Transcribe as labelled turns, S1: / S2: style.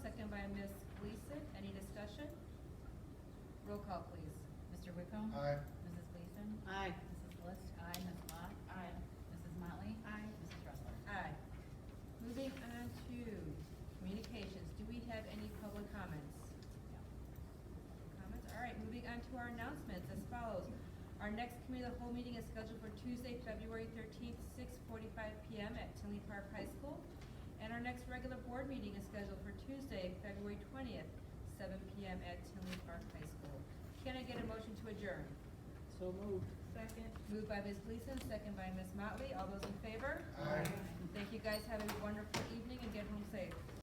S1: Roll call, please. Mr. Wickham?
S2: Aye.
S1: Mrs. Gleason?
S3: Aye.
S1: Mrs. List? Aye. Ms. Lot?
S3: Aye.
S1: Mrs. Motley?
S3: Aye.
S1: Mrs. Ressler? Aye. Moving on to communications. Do we have any public comments? Comments? All right, moving on to our announcements as follows. Our next committee of the whole meeting is scheduled for Tuesday, February thirteenth, six forty-five PM at Tinley Park High School. And our next regular board meeting is scheduled for Tuesday, February twentieth, seven PM at Tinley Park High School. Can I get a motion to adjourn?
S3: So moved.
S4: Second.
S1: Moved by Ms. Gleason, second by Ms. Motley. All those in favor?
S2: Aye.
S1: Thank you guys. Have a wonderful evening and get home safe.